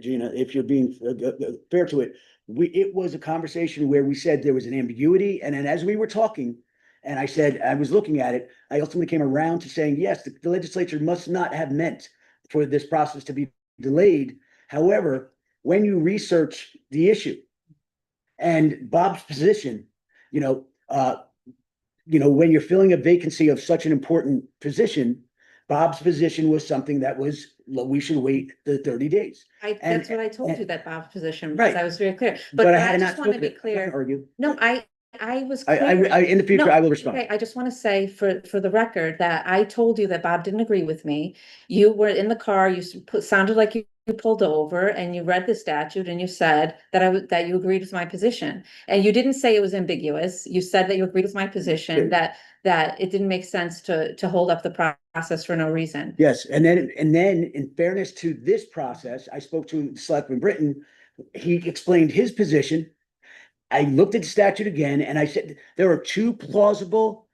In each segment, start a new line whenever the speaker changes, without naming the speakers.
Gina, if you're being uh, uh, fair to it, we, it was a conversation where we said there was an ambiguity, and then as we were talking, and I said, I was looking at it, I ultimately came around to saying, yes, the legislature must not have meant for this process to be delayed. However, when you research the issue and Bob's position, you know, uh, you know, when you're filling a vacancy of such an important position, Bob's position was something that was, "Look, we should wait the thirty days.
I,
And-
that's what I told
and-
you, that Bob's position, because
Right.
I was very clear, but
But I
I
had
just
not.
want to
spoken
be
it. I
clear.
Argue.
No, I, I was
I, I,
clear.
I- in the future,
No,
I will respond.
Okay, I just want to say for, for the record that I told you that Bob didn't agree with me. You were in the car, you s- put- sounded like you you pulled over and you read the statute and you said that I would, that you agreed with my position. And you didn't say it was ambiguous. You said that you agreed with my
Yeah.
position, that, that it didn't make sense to, to hold up the pro- process for no reason.
Yes, and then, and then in fairness to this process, I spoke to Selectman Britton. He explained his position. I looked at the statute again and I said, there are two plausible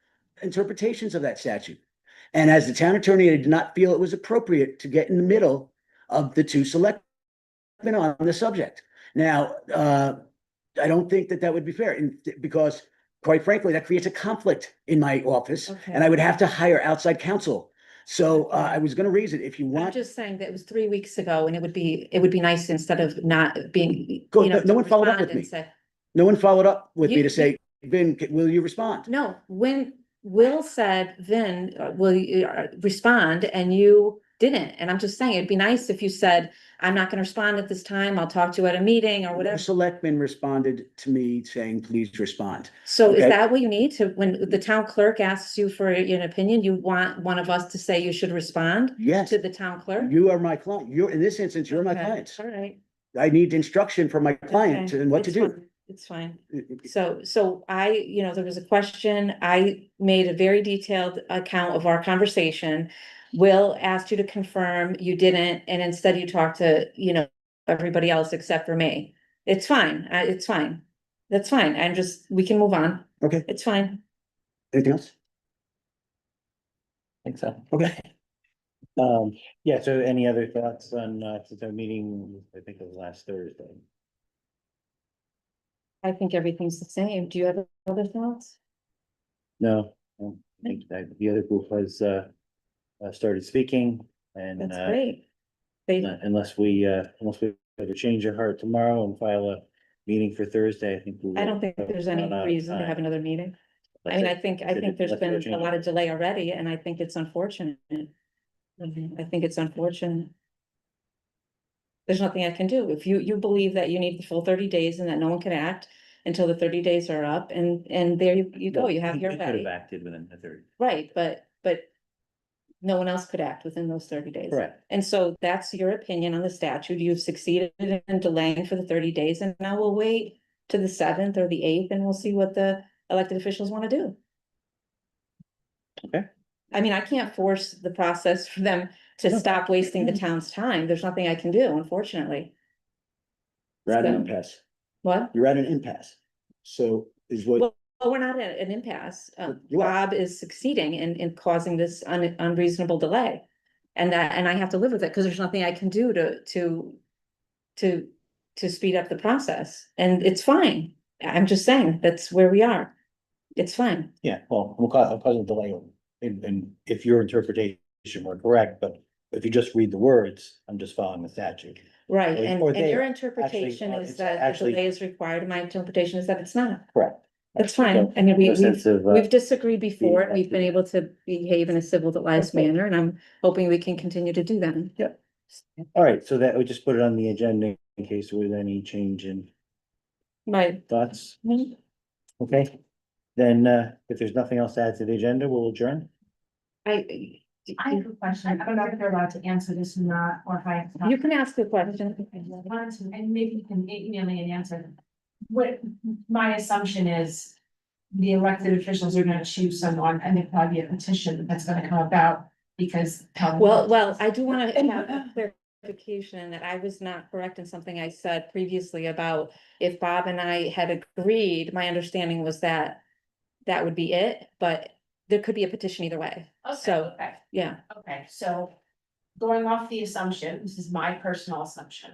interpretations of that statute. And as the town attorney, I did not feel it was appropriate to get in the middle of the two selectmen on the subject. Now, uh, I don't think that that would be fair and because quite frankly, that creates a conflict in my office and I would have to hire outside counsel. So uh, I was gonna raise it if you
I'm
want.
just saying that it was three weeks ago and it would be, it would be nice instead of not being,
Go-
you know.
no- no
to
one followed up
respond
with
and
me.
say-
No one followed up with me
You-
to
you-
say, Ben, c- will you respond?
No, when Will said, Vin, uh, will you uh, respond? And you didn't. And I'm just saying, it'd be nice if you said, I'm not gonna respond at this time. I'll talk to you at a meeting or
The
whatever.
selectman responded to me saying, please respond.
So is
okay.
that what you need to, when the town clerk asks you for an opinion, you want one of us to say you should respond
Yes,
to the town clerk?
you are my client. You're, in this instance, you're my
Okay,
client.
All right.
I need instruction from my client
okay,
and what to
it's
do.
fine, It's fine. So, so I, you know, there was a question, I made a very detailed account of our conversation. Will asked you to confirm, you didn't, and instead you talked to, you know, everybody else except for me. It's fine, I, it's fine. That's fine, I'm just, we can move on,
Okay,
it's fine.
anything else?
Think so.
Okay.
Um, yeah, so any other thoughts on, uh, since our meeting, I think it was last Thursday.
I think everything's the same, do you have other thoughts?
No, I don't think that the other group has, uh, uh, started speaking and,
That's
uh,
great. They,
Uh, Unless we, uh, unless we have to change our heart tomorrow and file a meeting for Thursday, I think. we
I
will.
don't think there's any
Run out of
reason to have
time.
another meeting. I
That's
mean, I
it.
think, I
Should
think
it-
there's
let's go
been
change
a
it.
lot of delay already, and I think it's unfortunate. Mhm, I think it's unfortunate. There's nothing I can do. If you, you believe that you need the full thirty days and that no one can act until the thirty days are up, and, and there you you go,
Well,
you have
we-
your
we could have
way.
acted within the thirty.
Right, but, but no one else could act within those thirty days.
Correct.
And so that's your opinion on the statute. You've succeeded in delaying for the thirty days, and now we'll wait to the seventh or the eighth, and we'll see what the elected officials want to do.
Okay.
I mean, I can't force the process for them to
No.
stop wasting the town's time. There's nothing I can do, unfortunately.
You're at an
So-
impasse.
What?
You're at an impasse. So is what,
Well- Well, we're not at an impasse. Um,
You are.
Bob is succeeding in, in causing this un- unreasonable delay. And that, and I have to live with it because there's nothing I can do to, to, to, to speed up the process. And it's fine. I'm just saying, that's where we are. It's fine.
Yeah, well, we'll cause, I'll cause a delay in, in, if your interpretation were correct, but if you just read the words, I'm just following the statute.
Right.
Or-
And,
or
and your
there,
interpretation
uh,
is
it's
that the
actually-
delay is required. My interpretation is that it's not.
Correct.
That's fine. I mean, we,
No
we
sense of, uh,
We've disagreed before, and we've been
activity.
able to behave in a civilized
Okay.
manner, and I'm hoping we can continue to do that.
Yep. all right, so that, we just put it on the agenda in case there was any change in
My,
thoughts, okay? Then, uh, if there's nothing else to add to the agenda, we'll adjourn.
I,
I have a question. I don't know if they're allowed to answer this or not, or if I.
you can ask the question.
I wanted to, and maybe you can email me an answer. What, my assumption is the elected officials are gonna choose someone and there'll probably be a petition that's gonna come about because. town-
Well, well, I do wanna have a clarification that I was not correct in something I said previously about if Bob and I had agreed, my understanding was that that would be it, but there could be a petition either way.
Okay,
so-
Okay,
Yeah.
okay, so going off the assumption, this is my personal assumption.